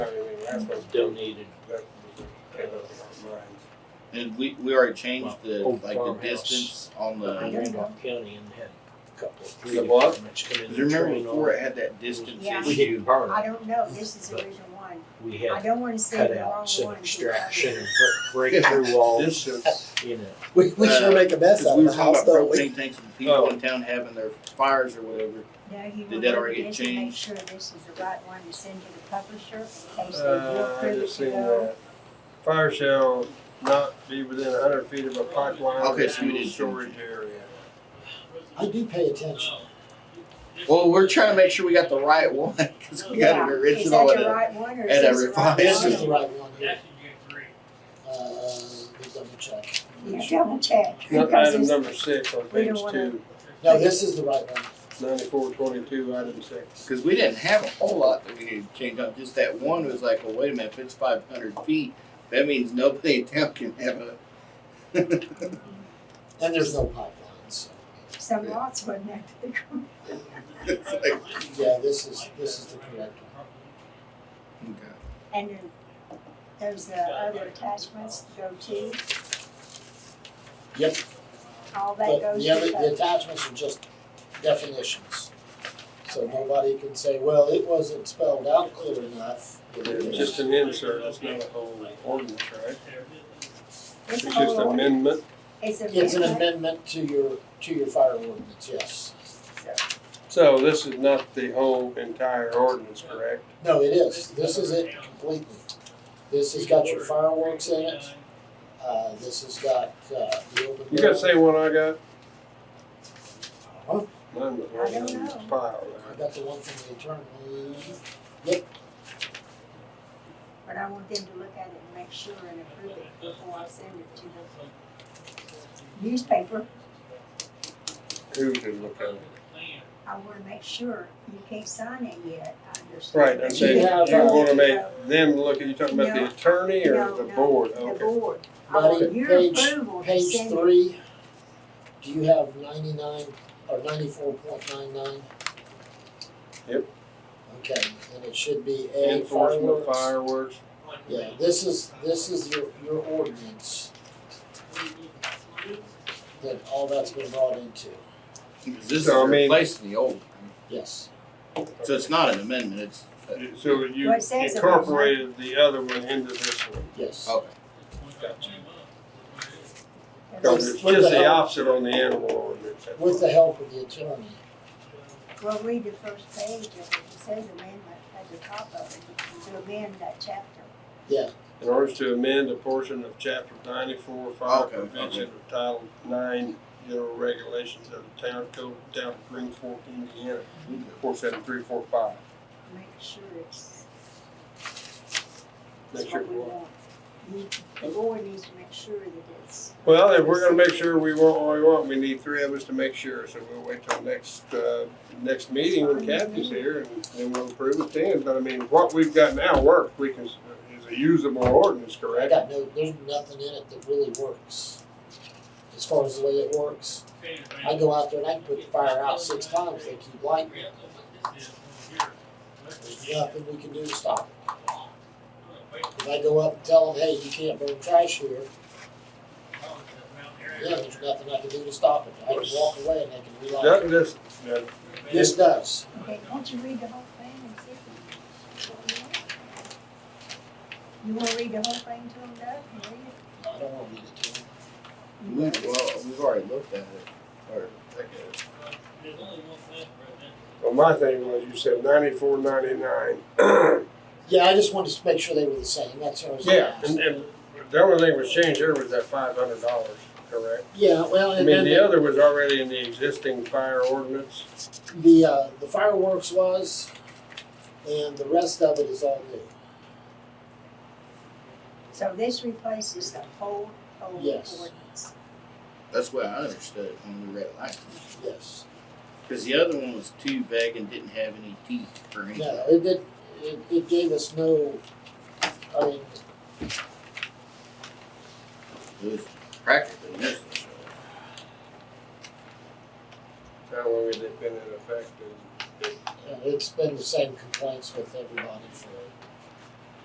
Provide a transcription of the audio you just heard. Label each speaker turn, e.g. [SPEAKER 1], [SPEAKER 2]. [SPEAKER 1] Uh, That's what
[SPEAKER 2] still needed.
[SPEAKER 1] that- right.
[SPEAKER 3] And we, we already changed the,
[SPEAKER 2] Old
[SPEAKER 3] like, the
[SPEAKER 2] farmhouse.
[SPEAKER 3] distance on the,
[SPEAKER 2] uh, Randolph County and had a couple, three
[SPEAKER 3] The what?
[SPEAKER 2] departments come in.
[SPEAKER 3] cause remember
[SPEAKER 2] and
[SPEAKER 3] before
[SPEAKER 2] train
[SPEAKER 3] it had that distance
[SPEAKER 4] Yeah.
[SPEAKER 2] on. We
[SPEAKER 3] issue?
[SPEAKER 2] didn't burn
[SPEAKER 4] I
[SPEAKER 2] it,
[SPEAKER 4] don't know, this is the original one.
[SPEAKER 2] we
[SPEAKER 4] I
[SPEAKER 2] had
[SPEAKER 4] don't wanna say the wrong
[SPEAKER 2] cutouts and
[SPEAKER 4] one.
[SPEAKER 2] extraction and bre- breakthrough walls,
[SPEAKER 1] This is,
[SPEAKER 2] you know.
[SPEAKER 5] We, we sure make a mess
[SPEAKER 3] Cause
[SPEAKER 5] out
[SPEAKER 3] Uh, we
[SPEAKER 5] of
[SPEAKER 3] were
[SPEAKER 5] the
[SPEAKER 3] talking
[SPEAKER 5] house,
[SPEAKER 3] about
[SPEAKER 5] don't we?
[SPEAKER 3] propane tanks and people
[SPEAKER 1] Oh.
[SPEAKER 3] in town having their fires or whatever.
[SPEAKER 4] Now, you
[SPEAKER 3] Did
[SPEAKER 4] will
[SPEAKER 3] that
[SPEAKER 4] look
[SPEAKER 3] already
[SPEAKER 4] at
[SPEAKER 3] get
[SPEAKER 4] this and make
[SPEAKER 3] changed?
[SPEAKER 4] sure this is the right one to send to the publisher in case they do
[SPEAKER 1] uh, I
[SPEAKER 4] approve it
[SPEAKER 1] just
[SPEAKER 4] to
[SPEAKER 1] seen
[SPEAKER 4] go.
[SPEAKER 1] that. Fire shall not be within a hundred feet of a pipeline
[SPEAKER 3] Okay,
[SPEAKER 1] or
[SPEAKER 3] so you
[SPEAKER 1] fuel
[SPEAKER 3] did
[SPEAKER 1] storage area.
[SPEAKER 5] I do pay attention.
[SPEAKER 3] Well, we're trying to make sure we got the right one, cause we got
[SPEAKER 4] Yeah,
[SPEAKER 3] an
[SPEAKER 4] is that
[SPEAKER 3] original and
[SPEAKER 4] the
[SPEAKER 3] a,
[SPEAKER 4] right one or
[SPEAKER 3] and
[SPEAKER 4] is
[SPEAKER 3] a
[SPEAKER 4] this the right
[SPEAKER 5] This
[SPEAKER 3] revised.
[SPEAKER 5] is the
[SPEAKER 4] one?
[SPEAKER 5] right one here. Uh, let me double check.
[SPEAKER 4] Yeah, double check.
[SPEAKER 1] No,
[SPEAKER 4] because
[SPEAKER 1] Item
[SPEAKER 4] this-
[SPEAKER 1] number six on
[SPEAKER 4] we
[SPEAKER 1] page
[SPEAKER 4] don't wanna-
[SPEAKER 1] two,
[SPEAKER 5] No, this is the right one.
[SPEAKER 1] ninety-four twenty-two, item six.
[SPEAKER 3] cause we didn't have a whole lot that we needed to change up. Just that one was like, well, wait a minute, if it's five hundred feet, that means nobody in town can have a.
[SPEAKER 5] And there's no pipeline, so.
[SPEAKER 4] Some lots wasn't that big.
[SPEAKER 3] It's like,
[SPEAKER 5] Yeah, this is, this is the correct one.
[SPEAKER 3] okay.
[SPEAKER 4] And then there's the other attachments to go to,
[SPEAKER 5] Yep,
[SPEAKER 4] all that
[SPEAKER 5] but
[SPEAKER 4] goes
[SPEAKER 5] the
[SPEAKER 4] to
[SPEAKER 5] other, the
[SPEAKER 4] the,
[SPEAKER 5] attachments are just definitions. So nobody can say, well, it wasn't spelled out clear enough. It
[SPEAKER 1] It's
[SPEAKER 5] is.
[SPEAKER 1] just an insert, it's not a whole ordinance, right?
[SPEAKER 4] it's
[SPEAKER 1] It's
[SPEAKER 4] a
[SPEAKER 1] just
[SPEAKER 4] whole,
[SPEAKER 1] an
[SPEAKER 4] order.
[SPEAKER 1] amendment.
[SPEAKER 4] it's a.
[SPEAKER 5] It's an amendment to your, to your fire ordinance, yes.
[SPEAKER 1] So this is not the whole entire ordinance, correct?
[SPEAKER 5] No, it is. This is it completely. This has got your fireworks in it. Uh, this has got, uh, the open.
[SPEAKER 1] You got the
[SPEAKER 5] barrel.
[SPEAKER 1] same one I got?
[SPEAKER 5] Huh?
[SPEAKER 1] Mine was
[SPEAKER 4] I don't
[SPEAKER 1] on
[SPEAKER 4] know.
[SPEAKER 1] this pile
[SPEAKER 5] I
[SPEAKER 1] there.
[SPEAKER 5] got the one from the attorney.
[SPEAKER 4] But I want them to look at it and make sure and approve it before I send it to the newspaper.
[SPEAKER 1] Who can look at it?
[SPEAKER 4] I wanna make sure you can't sign it yet, I understand.
[SPEAKER 1] Right, I'm
[SPEAKER 4] But
[SPEAKER 1] saying
[SPEAKER 4] you
[SPEAKER 5] have,
[SPEAKER 1] you
[SPEAKER 4] can-
[SPEAKER 5] uh,
[SPEAKER 1] wanna make them look, at you talking about
[SPEAKER 4] No,
[SPEAKER 1] the attorney or
[SPEAKER 4] no,
[SPEAKER 1] the
[SPEAKER 4] no,
[SPEAKER 1] board?
[SPEAKER 4] The
[SPEAKER 1] Okay.
[SPEAKER 4] board, I want
[SPEAKER 5] Buddy,
[SPEAKER 4] your
[SPEAKER 5] page-
[SPEAKER 4] approval to
[SPEAKER 5] Page
[SPEAKER 4] send it.
[SPEAKER 5] three, do you have ninety-nine or ninety-four point nine nine?
[SPEAKER 1] Yep.
[SPEAKER 5] Okay, and it should be A
[SPEAKER 1] Enforcement
[SPEAKER 5] fireworks.
[SPEAKER 1] fireworks.
[SPEAKER 5] Yeah, this is, this is your, your ordinance that all that's been brought into,
[SPEAKER 3] This is
[SPEAKER 1] So, I mean-
[SPEAKER 3] replacing the old.
[SPEAKER 5] yes.
[SPEAKER 3] So it's not an amendment, it's,
[SPEAKER 1] So you
[SPEAKER 4] Well, it says it was-
[SPEAKER 1] incorporated the other one into this one.
[SPEAKER 5] Yes.
[SPEAKER 3] okay.
[SPEAKER 1] Cause it's
[SPEAKER 5] With
[SPEAKER 1] just
[SPEAKER 5] the
[SPEAKER 1] the
[SPEAKER 5] help-
[SPEAKER 1] opposite on the animal ordinance. that's
[SPEAKER 5] With the
[SPEAKER 1] all.
[SPEAKER 5] help of the attorney.
[SPEAKER 4] Well, read the first page of it, it says amendment at the top of it, to amend that chapter.
[SPEAKER 1] In order to amend a portion of chapter ninety-four, fire
[SPEAKER 3] Okay, okay.
[SPEAKER 1] prevention of title nine, general regulations of the town code, of town of Green Fork, Indiana, four seven three four five.
[SPEAKER 4] Make sure it's,
[SPEAKER 1] Make
[SPEAKER 4] it's
[SPEAKER 1] sure
[SPEAKER 4] what we
[SPEAKER 1] it works.
[SPEAKER 4] want. You- The board needs to make sure that it's,
[SPEAKER 1] Well, if we're gonna make sure we want what we want, we need three of us to make sure, so we'll wait till next, uh, next meeting when Kathy's here and then we'll approve it then, but I mean, what we've got now works, we can, is a usable ordinance,
[SPEAKER 5] I
[SPEAKER 1] correct?
[SPEAKER 5] got no, there's nothing in it that really works. As far as the way it works, I go out there and I can put the fire out six times, they keep lighting. it. There's nothing we can do to stop it. If I go up and tell them, hey, you can't burn trash here, yeah, there's nothing I can do to stop it. I can walk away and they can relight it.
[SPEAKER 1] Doesn't this, uh,
[SPEAKER 5] This does.
[SPEAKER 4] okay, won't you read the whole thing and see if you- what you want? You wanna read the whole thing to them, Doug, and read it?
[SPEAKER 5] I don't want to read it to them.
[SPEAKER 3] We, well, we've already looked at it, or,
[SPEAKER 1] well, my thing was, you said ninety-four, ninety-nine.
[SPEAKER 5] Yeah, I just wanted to make sure they were the same, that's what I was
[SPEAKER 1] Yeah,
[SPEAKER 5] asking.
[SPEAKER 1] and, and the only thing was changed here was that five hundred dollars, correct?
[SPEAKER 5] Yeah, well,
[SPEAKER 1] I
[SPEAKER 5] and
[SPEAKER 1] mean,
[SPEAKER 5] then
[SPEAKER 1] the
[SPEAKER 5] the,
[SPEAKER 1] other was already in the existing fire ordinance.
[SPEAKER 5] the, uh, the fireworks was, and the rest of it is all new.
[SPEAKER 4] So this replaces the whole, whole
[SPEAKER 5] Yes.
[SPEAKER 4] ordinance.
[SPEAKER 3] that's what I understood it when we read it last time.
[SPEAKER 5] Yes.
[SPEAKER 3] Cause the other one was too vague and didn't have any teeth or anything.
[SPEAKER 5] No, it did, it, it gave us no, I mean,
[SPEAKER 3] It was practically useless.
[SPEAKER 1] How long has it been in effect? And
[SPEAKER 5] you know, it's been the same complaints with everybody for